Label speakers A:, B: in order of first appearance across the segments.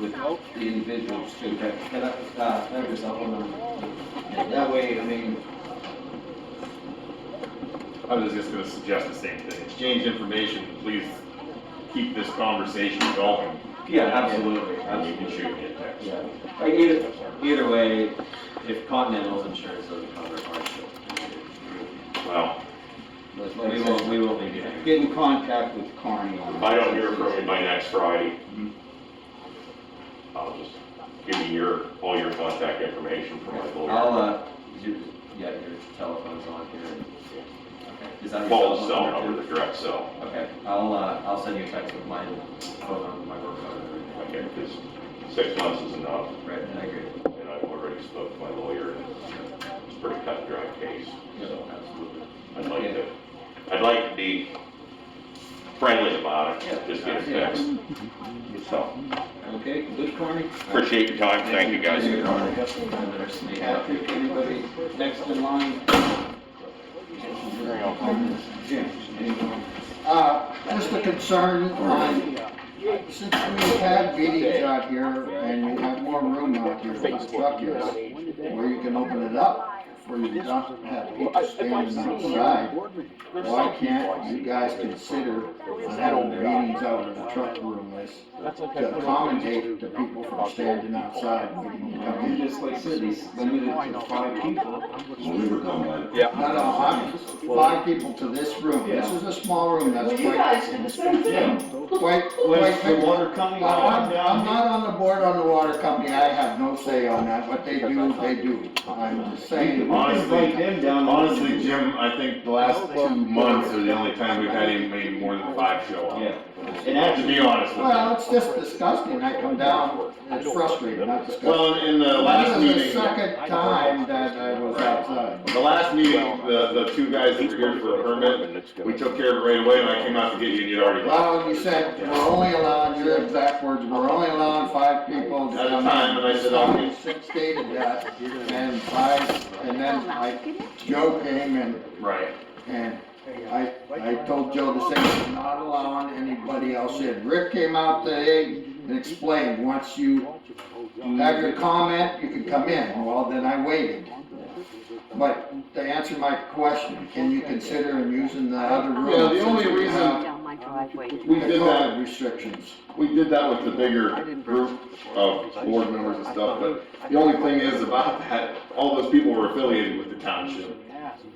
A: with the individuals too, that, that, uh, that was up on. That way, I mean,
B: I was just gonna suggest the same thing, exchange information, please keep this conversation going.
A: yeah, absolutely,
B: And you can
A: absolutely.
B: shoot me a text.
A: Yeah, like either, either way, if Continental's insurance doesn't cover hardship,
B: Well,
A: but we will, we will be getting.
C: Get in contact with Carney on
B: if
C: that.
B: I don't hear from you by next Friday, I'll just give you your, all your contact information for my
A: I'll,
B: lawyer.
A: uh, your, yeah, your telephone's on here. Is that your
B: Well, the cell
A: telephone number,
B: number, the direct cell,
A: too? Okay, I'll, uh, I'll send you a text with my phone number, my work phone, and everything.
B: okay, because six months is enough,
A: Right, and I agree.
B: and I've already spoke to my lawyer, and it's a pretty cut and dry case, so.
A: Absolutely.
B: I'd like to, I'd like to be friendly about it, just get it fixed. So,
C: Okay, good, Carney?
B: appreciate your time, thank you guys.
A: You're on. And there's me.
C: Patrick, anybody next in line? Jim, anyone?
D: Uh, just a concern on, since we have meetings out here and we have more room out here for the truckers, where you can open it up, where you don't have people standing outside, why can't you guys consider having meetings out in the truck room is to accommodate the people from standing outside when you come in?
A: Just like Sydney's limited to five people.
D: No, no, I'm, five people to this room, this is a small room, that's
E: Well,
D: quite.
E: you guys did the same thing.
D: Quite,
C: Where's
D: quite.
C: the water coming
D: I'm,
C: on
D: I'm
C: down?
D: not on the board on the water company, I have no say on that, what they do, they do, I'm just saying.
C: Invite
F: Honestly,
C: them down.
F: honestly, Jim, I think the last two months are the only time we've had anybody more than five show up.
C: Yeah,
F: And that, to be honest with
D: Well,
F: you.
D: it's just disgusting, I come down, it's frustrating, not disgusting.
F: Well, in the last
D: This is the
F: meeting,
D: second time that I was outside.
F: the last meeting, the, the two guys that were here for a permit, we took care of it right away and I came out to get you and you'd already left
D: Well, you said, we're only allowed, your exact words, we're only allowing five people. to
F: at a
D: come in."
F: time and I said, I'll get
D: Six stated that, and five, and then I, Joe came and
F: Right.
D: And I, I told Joe the same, thing, not allowing anybody else in. Rick came out today and explained, once you have your comment, you can come in. Well, then I waited. But to answer my question, can you consider using the other room?
F: Yeah, the only
D: since we
F: reason-
D: have
G: Down my driveway.
F: We
D: the
F: did
D: COVID
F: that,
D: Restrictions.
F: we did that with the bigger group of board members and stuff, but the only thing is about that, all those people were affiliated with the township.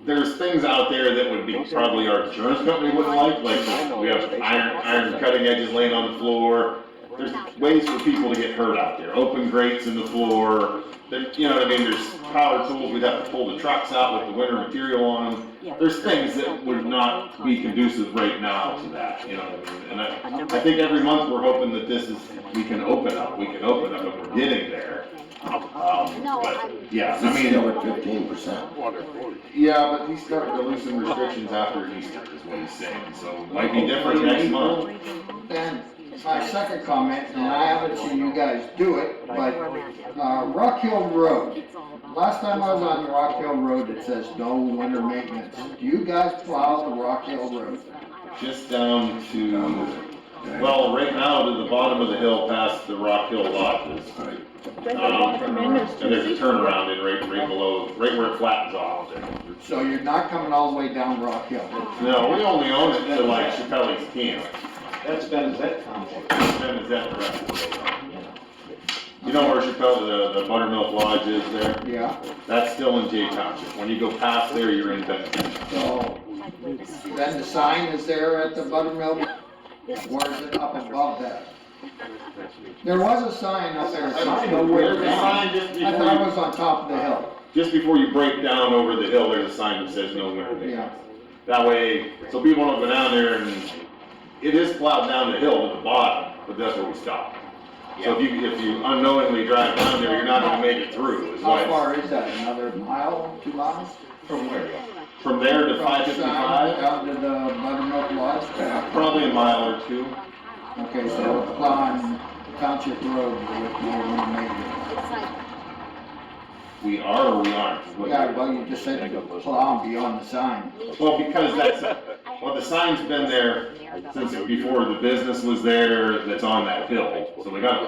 F: there's things out there that would be probably our insurance company wouldn't like, like we have iron, iron cutting edges laying on the floor. There's ways for people to get hurt out there, open grates in the floor, there, you know what I mean, there's power tools, we'd have to pull the trucks out with the winter material on them. There's things that would not be conducive right now to that, you know what I mean? And I, I think every month we're hoping that this is, we can open up, we can open up, and we're getting there. Um, but, yeah, I mean.
C: fifteen percent.
F: um, Yeah, but he started to loosen restrictions after Easter, is what he's saying, so might be different next month.
D: Then my second comment, and I haven't seen you guys do it, but, uh, Rock Hill Road. Last time I was on Rock Hill Road, it says no winter maintenance. Do you guys plow the Rock Hill Road?
F: Just down to, well, right now to the bottom of the hill past the Rock Hill Lodges. And there's a turnaround in right, right below, right where it flattens off there.
D: So you're not coming all the way down Rock Hill?
F: No, we only own it to like Chappelle's Camp,
C: That's Ben's vet complex.
F: then is that You know where Chappelle, the, the Buttermilk Lodge is there?
D: Yeah,
F: That's still in Jay Township. When you go past there, you're in Benton Township.
D: so then the sign is there at the Buttermilk, or is it up above that? There was a sign up there.
F: I
D: I
F: don't know where the sign just
D: thought it
F: before,
D: was on top of the hill,
F: just before you break down over the hill, there's a sign that says no winter
D: yeah.
F: maintenance. That way, so people don't go down there and, it is plowed down the hill to the bottom, but that's where we stop. So if you, if you unknowingly drive down there, you're not gonna make it through, is why
D: How
F: it's-
D: far is that, another mile, two miles?
C: From where?
F: From there to
D: From
F: five
D: the sign
F: fifty-five,
D: Down to the Buttermilk Lodge?
F: probably a mile or two.
D: Okay, so it's on Township Road, with no one maintenance.
F: We are or we aren't? is what-
D: Yeah, well, you just said you plow beyond the sign.
F: Well, because that's, well, the sign's been there since before the business was there that's on that hill, so we gotta